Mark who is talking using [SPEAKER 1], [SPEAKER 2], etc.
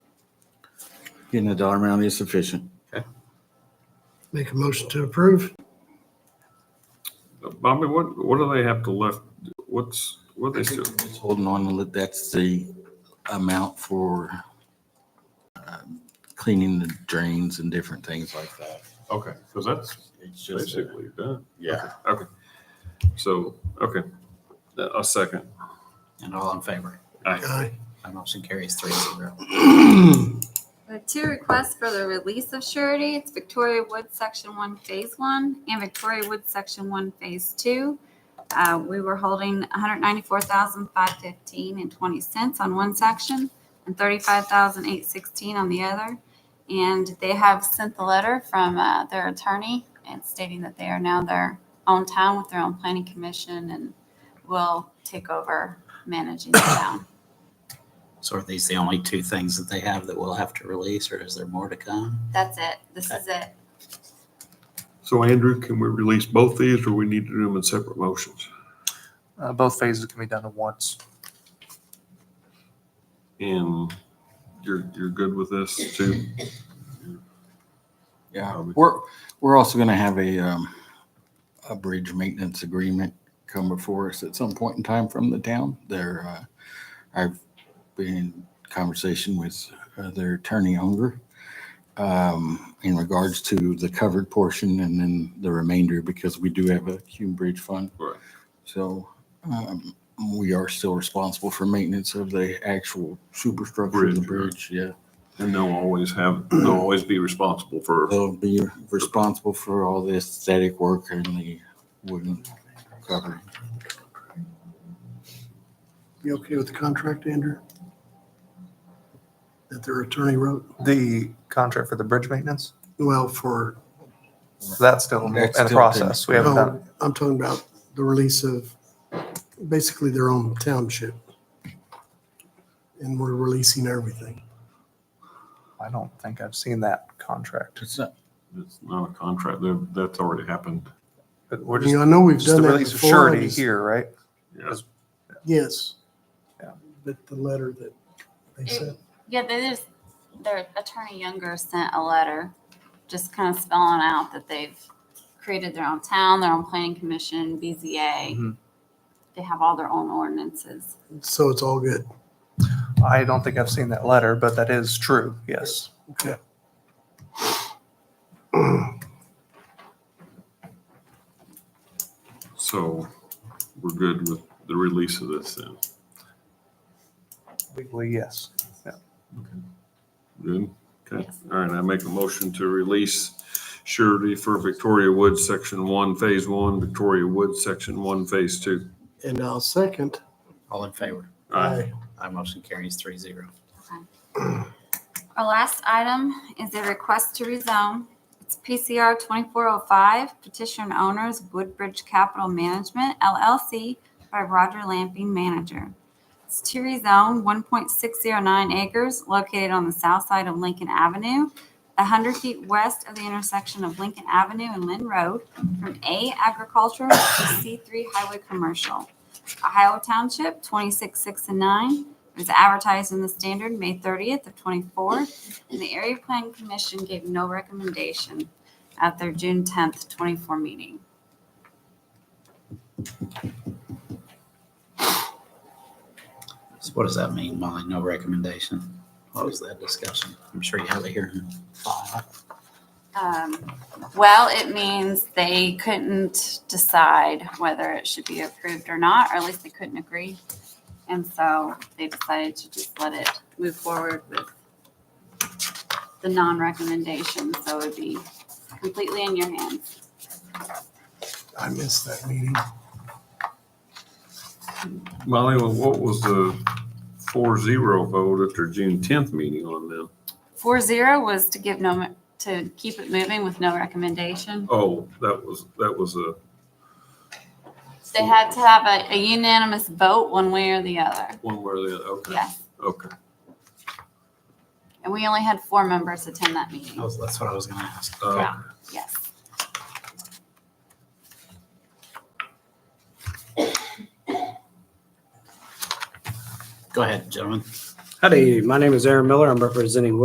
[SPEAKER 1] Getting a dollar amount is sufficient.
[SPEAKER 2] Make a motion to approve.
[SPEAKER 3] Bobby, what, what do they have to left? What's, what they still,
[SPEAKER 1] Just Holding on, to let- that's the amount for um, cleaning the drains and different things like that.
[SPEAKER 3] okay, because that's
[SPEAKER 1] It's just, uh,
[SPEAKER 3] basically done.
[SPEAKER 1] yeah.
[SPEAKER 3] Okay. So, okay, a second.
[SPEAKER 4] And all in favor?
[SPEAKER 2] Aye.
[SPEAKER 4] My motion carries three zero.
[SPEAKER 5] There are two requests for the release of surety. It's Victoria Wood, Section 1, Phase 1, and Victoria Wood, Section 1, Phase 2. Uh, We were holding $194,515 and 20 cents on one section and $35,816 on the other. And they have sent the letter from uh, their attorney and stating that they are now their own town with their own planning commission and will take over managing the town.
[SPEAKER 4] So are these the only two things that they have that we'll have to release, or is there more to come?
[SPEAKER 5] That's it. This is it.
[SPEAKER 3] So Andrew, can we release both these or we need to do them in separate motions?
[SPEAKER 6] Uh, both phases can be done at once.
[SPEAKER 3] And you're, you're good with this too?
[SPEAKER 1] Yeah, we're, we're also gonna have a, um, a bridge maintenance agreement come before us at some point in time from the town. There, uh, I've been in conversation with uh, their attorney owner, um, in regards to the covered portion and then the remainder, because we do have a Hume Bridge Fund.
[SPEAKER 3] Right.
[SPEAKER 1] So, um, we are still responsible for maintenance of the actual superstructure of the
[SPEAKER 3] Bridge,
[SPEAKER 1] bridge, yeah.
[SPEAKER 3] And they'll always have, they'll always be responsible for,
[SPEAKER 1] They'll be responsible for all the aesthetic work and the wooden covering.
[SPEAKER 2] You okay with the contract, Andrew? That their attorney wrote?
[SPEAKER 6] The contract for the bridge maintenance,
[SPEAKER 2] Well, for,
[SPEAKER 6] that's still in
[SPEAKER 1] That's
[SPEAKER 6] the
[SPEAKER 1] still
[SPEAKER 6] process. We haven't done
[SPEAKER 2] no, I'm talking about the release of basically their own township. And we're releasing everything.
[SPEAKER 6] I don't think I've seen that contract.
[SPEAKER 1] It's not,
[SPEAKER 3] it's not a contract, that- that's already happened.
[SPEAKER 6] But we're
[SPEAKER 2] You
[SPEAKER 6] just,
[SPEAKER 2] know, I know we've
[SPEAKER 6] just the
[SPEAKER 2] done that
[SPEAKER 6] release of
[SPEAKER 2] before. I
[SPEAKER 6] surety
[SPEAKER 2] just-
[SPEAKER 6] here, right?
[SPEAKER 3] Yeah.
[SPEAKER 2] Yes.
[SPEAKER 6] Yeah.
[SPEAKER 2] But the letter that they
[SPEAKER 5] It-
[SPEAKER 2] sent,
[SPEAKER 5] Yeah, they just, their attorney Younger sent a letter, just kind of spelling out that they've created their own town, their own planning commission, BZA.
[SPEAKER 6] Mhm.
[SPEAKER 5] They have all their own ordinances.
[SPEAKER 2] so it's all good.
[SPEAKER 6] I don't think I've seen that letter, but that is true, yes.
[SPEAKER 2] Okay.
[SPEAKER 3] So we're good with the release of this then.
[SPEAKER 6] Legally, yes.
[SPEAKER 3] Good, okay.
[SPEAKER 5] Yes.
[SPEAKER 3] All right, I make a motion to release surety for Victoria Woods, Section One, Phase One, Victoria Woods, Section One, Phase Two.
[SPEAKER 2] And I'll second.
[SPEAKER 4] All in favor?
[SPEAKER 3] Aye.
[SPEAKER 4] My motion carries three zero.
[SPEAKER 5] Our last item is a request to rezone. It's PCR 2405, petition and owners Woodbridge Capital Management LLC by Roger Lamping, manager. It's to rezone 1.609 acres located on the south side of Lincoln Avenue, 100 feet west of the intersection of Lincoln Avenue and Lynn Road, from A agricultural to C3 highway commercial. Ohio Township, 266 and 9, it was advertised in the Standard May 30th of '24, and the Area Plan Commission gave no recommendation at their June 10th, '24 meeting.
[SPEAKER 4] So what does that mean, Molly? No recommendation? What was that discussion? I'm sure you have it here in file.
[SPEAKER 5] Um, Well, it means they couldn't decide whether it should be approved or not, or at least they couldn't agree. And so they decided to just let it move forward with the non-recommendation, so it would be completely in your hands.
[SPEAKER 2] I missed that meeting.
[SPEAKER 3] Molly, well, what was the four zero vote at their June tenth meeting on them?
[SPEAKER 5] Four zero was to give no, to keep it moving with no recommendation.
[SPEAKER 3] Oh, that was, that was a,
[SPEAKER 5] They had to have a a unanimous vote one way or the other.
[SPEAKER 3] one where the, other. okay,
[SPEAKER 5] Yes.
[SPEAKER 3] okay.
[SPEAKER 5] And we only had four members attend that
[SPEAKER 4] That
[SPEAKER 5] meeting.
[SPEAKER 4] was- That's what I was gonna ask.
[SPEAKER 3] Uh,
[SPEAKER 5] Yes.
[SPEAKER 4] Go ahead, gentlemen.
[SPEAKER 7] Howdy, my name is Aaron Miller. I'm representing